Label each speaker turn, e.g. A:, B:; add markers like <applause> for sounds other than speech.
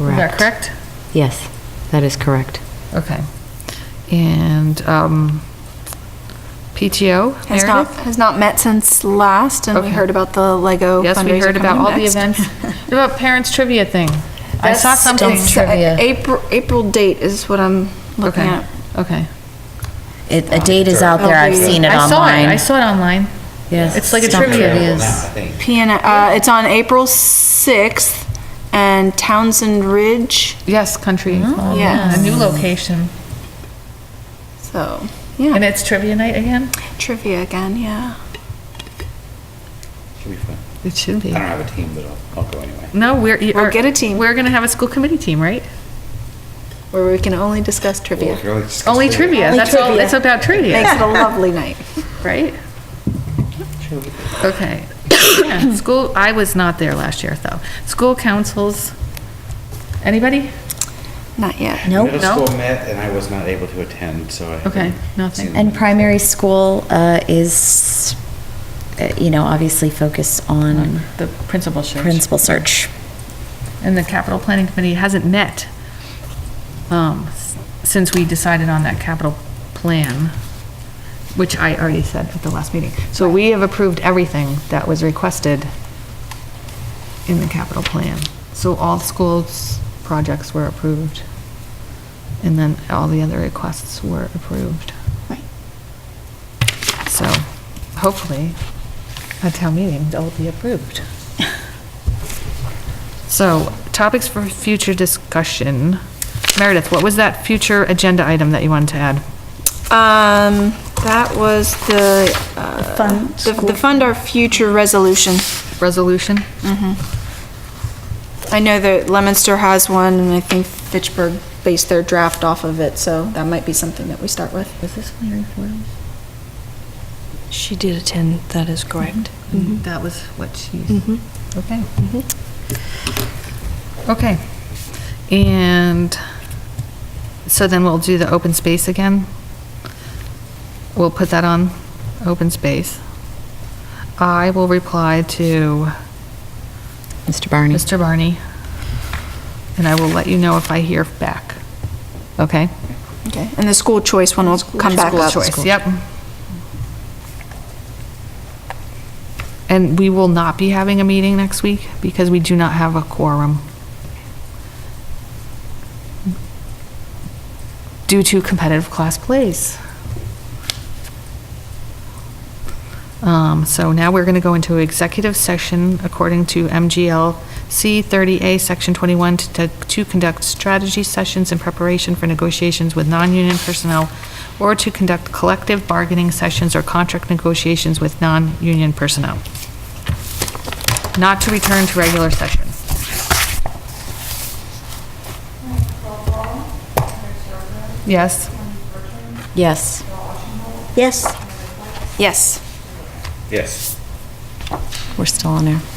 A: Is that
B: Correct.
A: correct?
B: Yes, that is correct.
A: Okay. And um, PTO,
C: Has not,
A: Meredith?
C: has not met since last, and we
A: Okay.
C: heard about the Lego fundraiser
A: Yes, we heard about all
C: coming
A: the
C: next. <laughs>
A: events. What about parents trivia thing? I saw
C: That's-
A: something
C: it's, uh,
A: trivia.
C: April, April date is what I'm looking
A: Okay,
C: at.
A: okay.
D: It, a date is out there, I've seen it
A: Oh, I saw it, I
D: online.
A: saw it online.
D: Yes.
A: It's like a
D: It's on
A: trivia.
E: Now, I think.
C: PN, uh, it's on April 6th, and Townsend Ridge,
A: Yes, country. Oh, club.
C: Yes.
A: Mm-hmm. A new location.
C: so,
A: And
C: yeah,
A: it's trivia night again?
C: trivia again, yeah.
E: Should be fun.
A: It should
E: I
A: be.
E: don't have a team, but I'll, I'll go anyway.
A: No, we're.
C: We'll
A: are-
C: get a team.
A: We're gonna have a school committee team, right?
C: Where we can only discuss
E: Well, we
C: trivia.
E: could always discuss
A: Only
E: later.
A: trivia,
C: Only
A: that's all,
C: trivia.
A: it's about
C: Makes
A: trivia,
C: it a lovely night.
A: right? Okay. Yeah, School, I was not there last year, though. School councils, anybody?
C: Not yet.
D: Nope.
A: No?
E: Middle school met and I was not able to attend, so I.
A: Okay,
E: haven't
A: nothing.
E: seen them.
D: And primary school uh, is, uh, you know, obviously focused on
A: The principal search.
D: principal search.
A: And the capital planning committee hasn't met, um, s- since we decided on that capital plan, which I already said at the last meeting. So we have approved everything that was requested in the capital plan. So all schools' projects were approved. And then all the other requests were approved.
C: Right.
A: So hopefully, at town meeting, they'll be approved. So topics for future discussion. Meredith, what was that future agenda item that you wanted to add?
C: Um, that was the, uh,
F: fund
C: the the Fund Our Future resolution.
A: Resolution?
C: I know that Lemonster has one, and I think Fitchburg based their draft off of it, so that might be something that we start with.
A: Was this Larry Foils?
G: She did attend, that is correct.
A: That was what she, okay. Mm-hmm. Okay. And so then we'll do the open space again. We'll put that on open space. I will reply to
D: Mr.
C: Mm.
D: Barney?
A: Mr. Barney, and I will let you know if I hear back. Okay?
C: Okay. And the school choice one will come back
A: School
C: up.
A: choice, Yep. And we will not be having a meeting next week because we do not have a quorum. Due to competitive class plays. Um, so now we're gonna go into executive session according to MGL C thirty A, section twenty-one, to, to conduct strategy sessions in preparation for negotiations with non-union personnel or to conduct collective bargaining sessions or contract negotiations with non-union personnel. Not to return to regular session. Yes?
D: Yes.
F: Yes.
C: Yes.
E: Yes.
D: We're still on air.